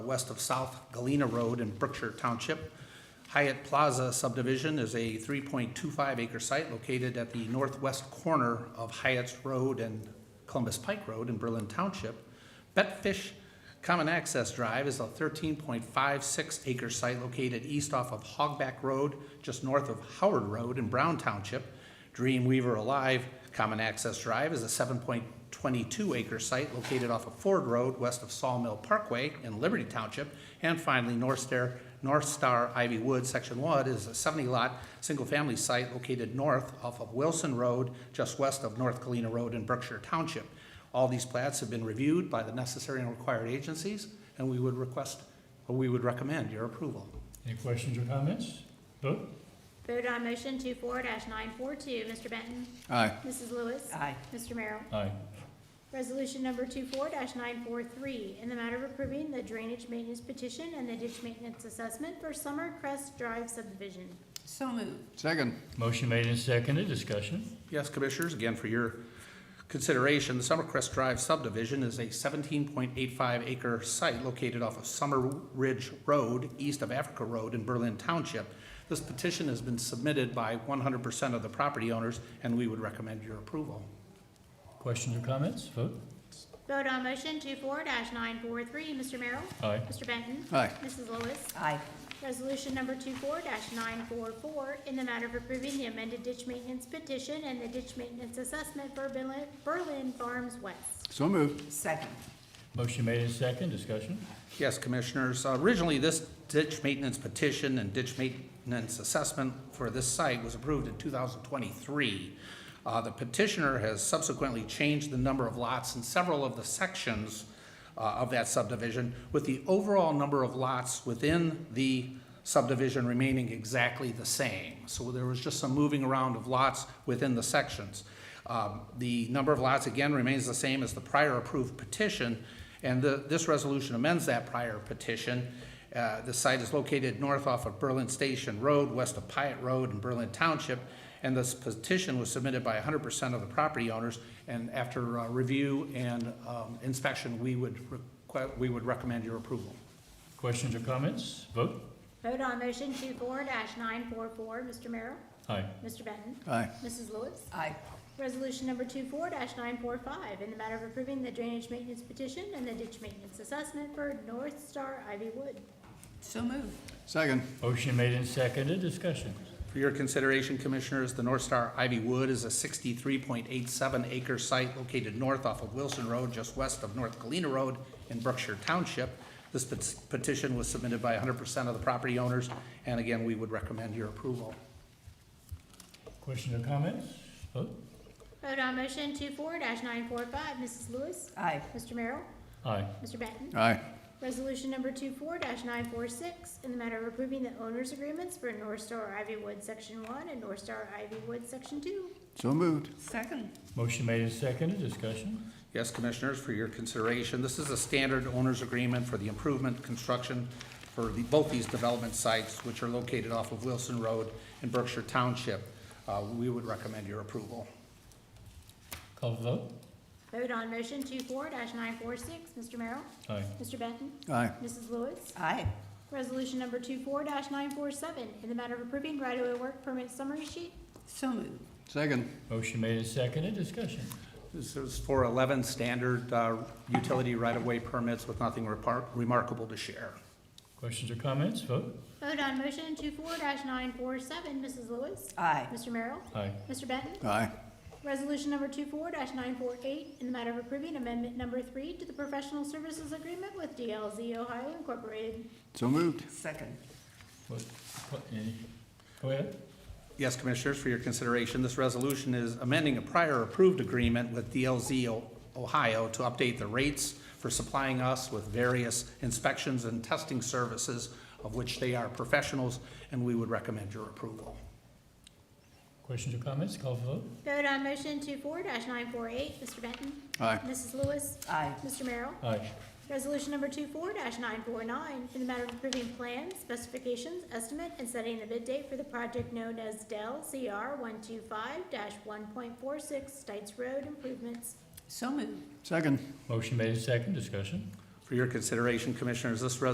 west of South Galena Road in Brookshire Township. Hyatt Plaza subdivision is a 3.25 acre site located at the northwest corner of Hyatt's Road and Columbus Pike Road in Berlin Township. Betfish Common Access Drive is a 13.56 acre site located east off of Hogback Road, just north of Howard Road in Brown Township. Dreamweaver Alive Common Access Drive is a 7.22 acre site located off of Ford Road, west of Sawmill Parkway in Liberty Township. And finally, North Star, North Star Ivy Woods Section 1 is a 70-lot, single-family site located north off of Wilson Road, just west of North Galena Road in Berkshire Township. All these plats have been reviewed by the necessary and required agencies, and we would request, or we would recommend your approval. Any questions or comments? Vote? Vote on motion 2 nine four two. Mr. Benton? Aye. Mrs. Lewis? Aye. Mr. Merrill? Aye. Resolution number 2 nine four three, in the matter of approving the drainage maintenance petition and the ditch maintenance assessment for Summer Crest Drive subdivision. So moved. Second. Motion made and seconded, discussion? Yes, Commissioners, again for your consideration, the Summercrest Drive subdivision is a 17.85 acre site located off of Summer Ridge Road, east of Africa Road in Berlin Township. This petition has been submitted by 100% of the property owners, and we would recommend your approval. Questions or comments? Vote? Vote on motion 2 nine four three. Mr. Merrill? Aye. Mr. Benton? Aye. Mrs. Lewis? Aye. Resolution number 2 nine four four, in the matter of approving the amended ditch maintenance petition and the ditch maintenance assessment for Berlin- Berlin Farms West. So moved. Second. Motion made and seconded, discussion? Yes, Commissioners. Uh, Originally, this ditch maintenance petition and ditch maintenance assessment for this site was approved in 2023. Uh, The petitioner has subsequently changed the number of lots in several of the sections uh, of that subdivision, with the overall number of lots within the subdivision remaining exactly the same. So there was just some moving around of lots within the sections. Um, The number of lots, again, remains the same as the prior approved petition, and the- this resolution amends that prior petition. Uh, The site is located north off of Berlin Station Road, west of Pyatt Road in Berlin Township, and this petition was submitted by 100% of the property owners, and after uh, review and um, inspection, we would, requ- we would recommend your approval. Questions or comments? Vote? Vote on motion 2 nine four four, Mr. Merrill? Aye. Mr. Benton? Aye. Mrs. Lewis? Aye. Resolution number 2 nine four five, in the matter of approving the drainage maintenance petition and the ditch maintenance assessment for North Star Ivy Wood. So moved. Second. Motion made and seconded, discussion? For your consideration, Commissioners, the North Star Ivy Wood is a 63.87 acre site located north off of Wilson Road, just west of North Galena Road in Berkshire Township. This pet- petition was submitted by 100% of the property owners, and again, we would recommend your approval. Questions or comments? Vote? Vote on motion 2 nine four five, Mrs. Lewis? Aye. Mr. Merrill? Aye. Mr. Benton? Aye. Resolution number 2 nine four six, in the matter of approving the owner's agreements for North Star Ivy Wood Section One and North Star Ivy Wood Section Two. So moved. Second. Motion made and seconded, discussion? Yes, Commissioners, for your consideration, this is a standard owner's agreement for the improvement, construction for the, both these development sites, which are located off of Wilson Road in Berkshire Township. Uh, We would recommend your approval. Call for vote? Vote on motion 2 nine four six, Mr. Merrill? Aye. Mr. Benton? Aye. Mrs. Lewis? Aye. Resolution number 2 nine four seven, in the matter of approving right-of-way work permit summary sheet. So moved. Second. Motion made and seconded, discussion? This is for 11 standard uh, utility right-of-way permits with nothing repar- remarkable to share. Questions or comments? Vote? Vote on motion 2 nine four seven, Mrs. Lewis? Aye. Mr. Merrill? Aye. Mr. Benton? Aye. Resolution number 2 nine four eight, in the matter of approving amendment number three to the professional services agreement with DLZ Ohio Incorporated. So moved. Second. Vote? Any? Go ahead. Yes, Commissioners, for your consideration, this resolution is amending a prior approved agreement with DLZ O- Ohio to update the rates for supplying us with various inspections and testing services, of which they are professionals, and we would recommend your approval. Questions or comments? Call for vote? Vote on motion 2 nine four eight, Mr. Benton? Aye. Mrs. Lewis? Aye. Mr. Merrill? Aye. Resolution number 2 nine four nine, in the matter of approving plans, specifications, estimate, and setting the bid date for the project known as Dell CR one two five one point four six Stites Road improvements. So moved. Second. Motion made and seconded, discussion? For your consideration, Commissioners, this resolution